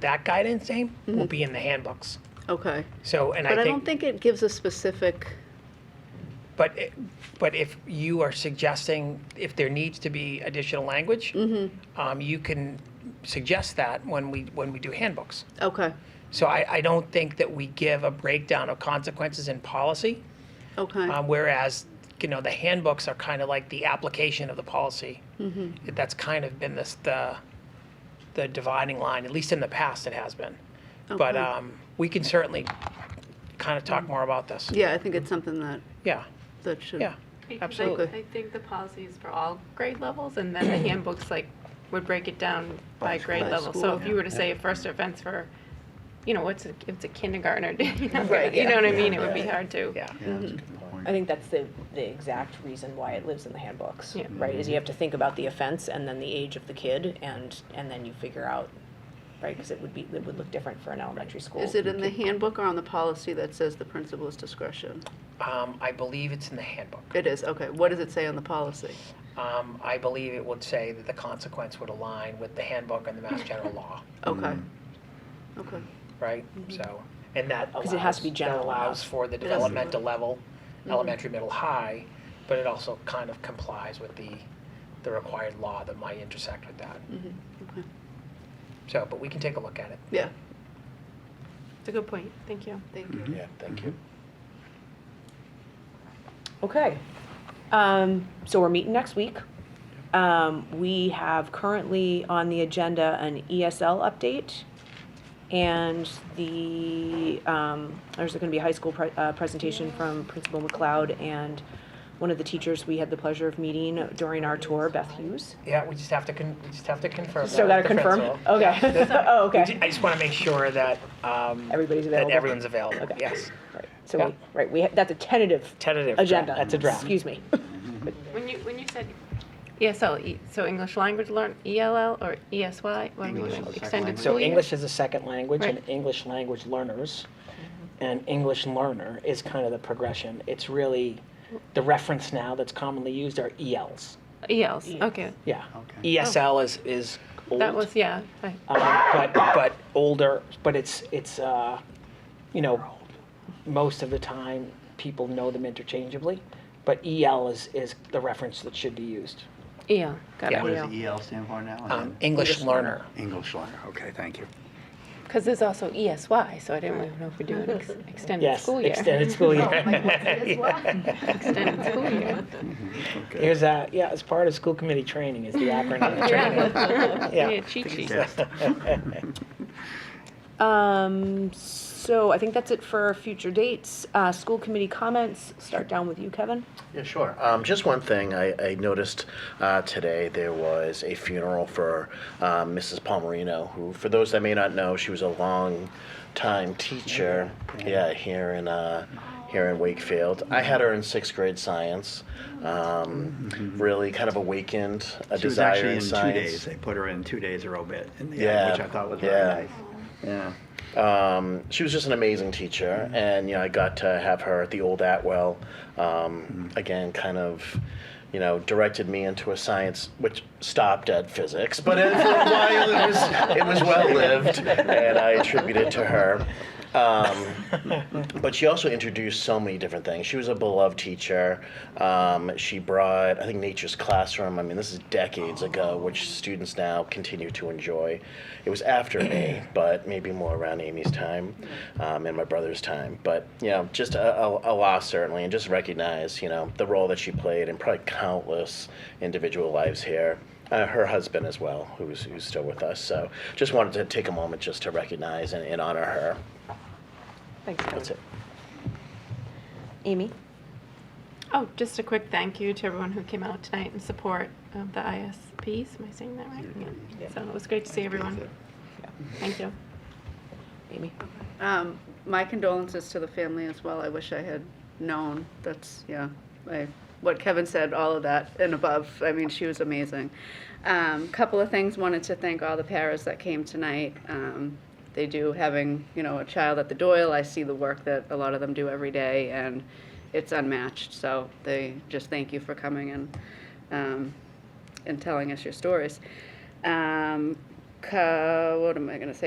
that guidance name will be in the handbooks. Okay. So, and Mm-hmm. But I I think, don't think it gives a specific, but it- but if you are suggesting if there needs to be additional language, Mm-hmm. um, you can suggest that when we when we do handbooks. okay, So I, I don't think that we give a breakdown of consequences in policy, okay, um, whereas you know the handbooks are kind of like the application of the policy. That's kind of been this the the dividing line, at least in the past, it has been. But Okay. um, we can certainly kind of talk more about this. yeah, I think it's something that, Yeah, that should. yeah, Because I- Absolutely. I think the policy is for all grade levels, and then the handbooks, like, would break it down by grade by level. So school, if you were to say a first offense for, you know, what's, a- if it's a kindergartner, you know, Right, you know yeah. what I mean? It would be hard to. yeah. Yeah, that's a good point. I think that's the, the exact reason why it lives in the handbooks, Yeah. right? Is you have to think about the offense and then the age of the kid and, and then you figure out, right? Because it would be, it would look different for an elementary school. Is it in the handbook or on the policy that says the principal's discretion? Um, I believe it's in the handbook. It is, okay. What does it say on the policy? Um, I believe it would say that the consequence would align with the handbook and the Mass General Law, Okay. Mm. Okay, right? So, and that allows. Mm-hmm. 'Cause it has to be that general Allows enough. for the has to be- developmental level, Mm-hmm. elementary, middle, high, but it also kind of complies with the, the required law that might intersect with that. Mm-hmm. okay. So, but we can take a look at it. Yeah, It's a good point, thank you. thank you. Yeah, thank you. Okay. Um, so we're meeting next week. Um, we have currently on the agenda an ESL update. And the, um, there's gonna be a high school pre- uh, presentation from Principal McLeod and one of the teachers we had the pleasure of meeting during our tour, Beth Hughes. Yeah, we just have to, con- we just have to confirm. Still that gotta with the confirm? principal. Okay. Oh, We okay. ju- I just want to make sure that, um, Everybody's that available. everyone's available, Okay. yes. Right. So, Yeah. we- right, we, ha- that's a tentative Tentative. draft. agenda. That's a draft. Excuse me. When you, when you said ESL, E- so English language learn, ELL or ESY? What are we English doing? as a second Extended language. school So year? English is a second language and Right. English language learners. And English learner is kind of the progression. It's really, the reference now that's commonly used are ELs. ELs, E okay. Yeah. Okay. ESL is, is old. Oh. That was, yeah, I- um, but, but older, but it's, it's, uh, you know, most of the time, people know them interchangeably. But EL is, is the reference that should be used. EL, E got Yeah. it, What EL. does the EL stand for now? Um, English learner. English learner, okay, thank you. Because there's also ESY, so I didn't really know if we're doing ex- extended Yes, school year. extended school year. Extended school year. Okay. Here's a, yeah, it's part of school committee training is the acronym. Yeah. Yeah, cheat sheet. Yes. Um, so I think that's it for future dates. Uh, school committee comments, start down with you, Kevin. Yeah, sure. Um, just one thing I, I noticed uh, today there was a funeral for um, Mrs. Palmerino, who, for those that may not know, she was a long time teacher. Yeah, here in uh, here in Wakefield. I had her in sixth grade science. Um, Really, kind of awakened a Mm-hmm. She was desire actually in two science. days, they put her in two days a robit in the Yeah, end, which I thought was yeah. very nice. Yeah. um, she was just an amazing teacher, and you know I got to have her at the old Atwell. Um, Again, kind of, you know, directed me into a science which stopped at physics, but it, for a while it was it was well lived, and I attribute it to her. Um, but she also introduced so many different things. She was a beloved teacher. Um, she brought, I think, Nature's Classroom. I mean, this is decades ago, which students now continue to enjoy. It was after me, but maybe more around Amy's time um, and my brother's time. But, you know, just a, a, a loss, certainly, and just recognize, you know, the role that she played in probably countless individual lives here. Uh, her husband as well, who's, who's still with us. So just wanted to take a moment just to recognize and, and honor her. Thanks, That's Kevin. it. Amy? Oh, just a quick thank you to everyone who came out tonight in support of the ISPs. Am I saying that right? Yeah. So it was great to see everyone. Thank you. Amy? Um, my condolences to the family as well. I wish I had known. That's, yeah, I, what Kevin said, all of that and above. I mean, she was amazing. Um, couple of things. Wanted to thank all the paras that came tonight. Um, they do having, you know, a child at the Doyle. I see the work that a lot of them do every day and it's unmatched. So they just thank you for coming and, um, and telling us your stories. Um, co- what am I going to say?